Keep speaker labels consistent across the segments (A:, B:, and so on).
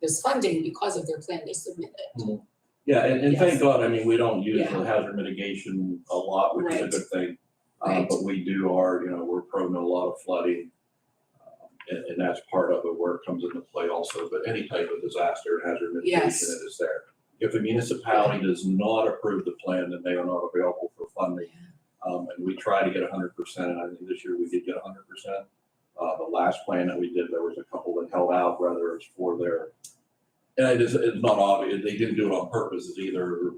A: there's funding because of their plan they submitted.
B: Yeah, and, and
A: Yes.
B: thank God, I mean, we don't use
A: Yeah.
B: the hazard mitigation a lot, which is a
A: Right.
B: good thing. Uh,
A: Right.
B: but we do are, you know, we're prone to a lot of flooding. um, And, and that's part of it where it comes into play also, but any type of disaster hazard mitigation,
A: Yes.
B: it is there. If a municipality does not approve the plan, then they are not available for funding. Um, and we try to get hundred percent, and I think this year we did get hundred percent. Uh, the last plan that we did, there was a couple that held out, whether it's for their and it is, it's not obvious, they didn't do it on purpose, it's either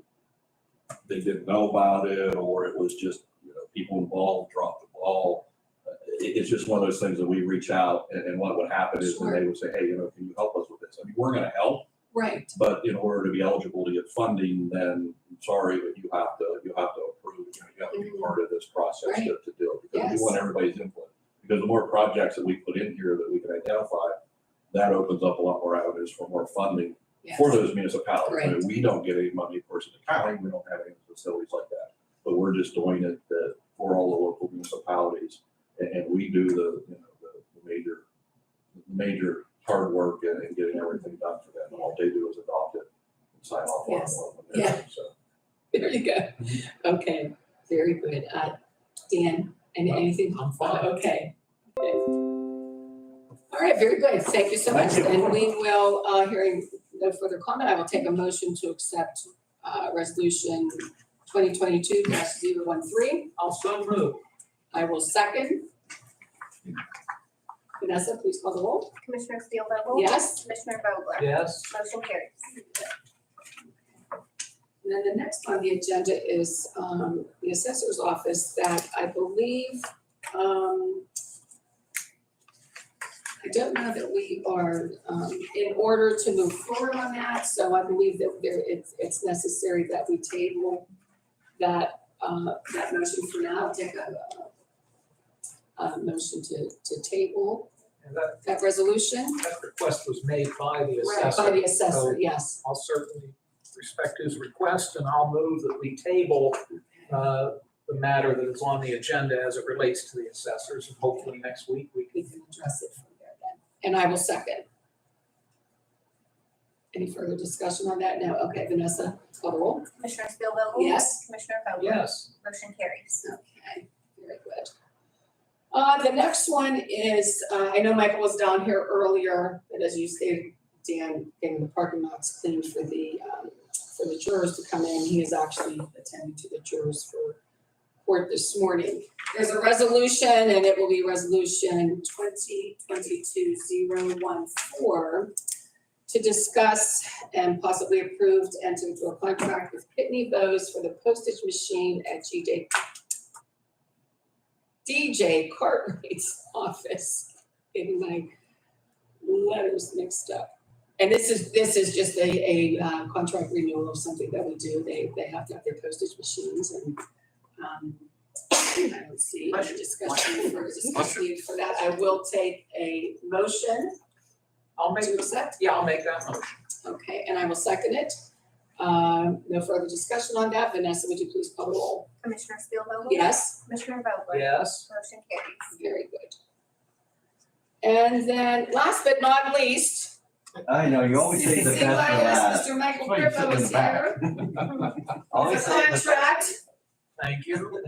B: they didn't know about it, or it was just, you know, people involved dropped the ball. Uh, It, it's just one of those things that we reach out, and, and what would happen is, when they would say, hey, you know, can you help us with this? I mean, we're gonna help,
A: Right,
B: but in order to be eligible to get funding, then, I'm sorry, but you have to, you have to approve, you know, you have to be
A: Mhm.
B: part of this process to, to do it. Because we
A: Yes.
B: want everybody's input, because the more projects that we put in here that we can identify, that opens up a lot more avenues for more funding
A: yes.
B: for those municipalities. I mean, We don't get any money, of course, in the county, we don't have any facilities like that. But we're just doing it uh, for all the local municipalities. And, and we do the, you know, the the major, major hard work and and getting everything done for them. And all they do is adopt it and sign off on
A: Yes.
B: it. when they're ready, So.
A: There you go.
B: Mm-hmm.
A: Okay, very good. Uh, Dan, any, anything on file? Okay. Okay. All right, very good. Thank you so much.
B: Thank you.
A: And we will, uh, hearing no further comment, I will take a motion to accept, uh, resolution twenty twenty-two 13
C: I'll so move.
A: I will second. Vanessa, please call the roll.
D: Commissioner Steelvogel?
A: Yes?
D: Commissioner Vogler?
C: Yes.
D: Motion carries.
A: And then the next on the agenda is um the assessor's office that I believe um I don't know that we are um in order to move forward on that, so I believe that there it's it's necessary that we table that uh that motion for now, I'll take a uh, a motion to to table
C: And that,
A: that resolution.
C: that request was made by the
A: Right, by
C: assessor.
A: the assessor, yes.
C: I'll certainly respect his request and I'll move that we table, uh, the matter that is on the agenda as it relates to the assessors. And hopefully next week we
A: we
C: can,
A: can address it from there then. And I will second. Any further discussion on that? No, okay, Vanessa, call the roll.
D: Commissioner Steelvogel?
A: Yes.
D: Commissioner Vogler?
C: yes,
D: Motion carries.
A: Okay, very good. Uh, the next one is, uh, I know Michael was down here earlier, but as you stated, Dan, getting the parking lots cleaned for the, um, for the jurors to come in. He is actually attending to the jurors for court this morning. There's a resolution and it will be resolution twenty twenty-two zero one four to discuss and possibly approve to enter into a contract with Pitney Bowes for the postage machine at G J DJ Cartwright's office, getting my letters mixed up. And this is, this is just a, a uh, contract renewal of something that we do. They, they have to have their postage machines and, um, I don't see any discussion for, discussion needed for that. I will take a motion
C: I'll make,
A: to accept,
C: yeah, I'll make that motion.
A: okay, and I will second it. Um, no further discussion on that. Vanessa, would you please call the roll?
D: Commissioner Steelvogel?
A: Yes?
D: Commissioner Vogler?
C: Yes.
D: Motion
A: Very
D: carries.
A: good. And then, last but not least.
E: I know, you always say the best for last.
A: CYS, Mr. Michael
E: That's why you sit
A: Griffo
E: in the
A: is here.
E: Always say the
A: It's a contract.
C: Thank you.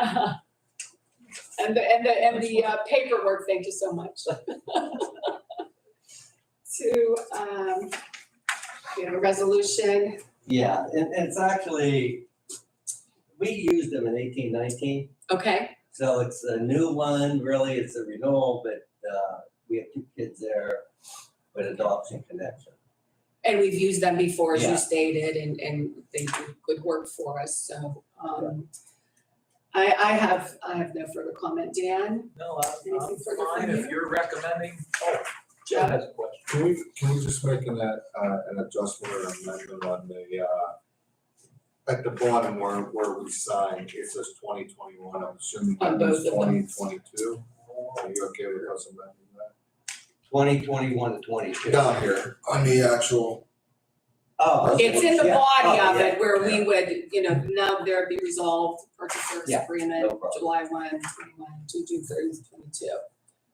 A: And the, and the, and the uh, paperwork, thank you so much. To, um, we have a resolution,
E: Yeah, and and it's actually, we used them in eighteen nineteen,
A: okay,
E: so it's a new one, really, it's a renewal, but uh, we have two kids there with adoption connection.
A: and we've used them before, as
E: Yeah.
A: you stated, and, and they do good work for us, so, um, I, I have, I have no further comment, Dan?
C: No, I'm, I'm
A: Anything further from
C: fine if
A: you?
C: you're recommending. Oh, Jen has a question.
F: Can we, can we just make an, uh, an adjustment or amendment on the, uh, at the bottom where, where we sign, it says twenty twenty-one, I'm assuming
A: On
F: that
A: both
F: means
A: of them.
F: twenty twenty-two? Are you okay with us amending that?
E: Twenty twenty-one to twenty-two.
F: Down here, on the actual,
E: Oh. okay,
A: It's in the
E: yeah.
A: body
E: Oh,
A: of
E: yeah,
A: it where we
E: yeah.
A: would, you know, now there'd be resolved purchase service
E: Yeah, no
A: agreement,
E: problem.
A: July 1, 21, to June 30, 22.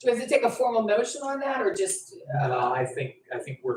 A: Do we have to take a formal motion on that or just? uh,
C: Uh, I think, I think we're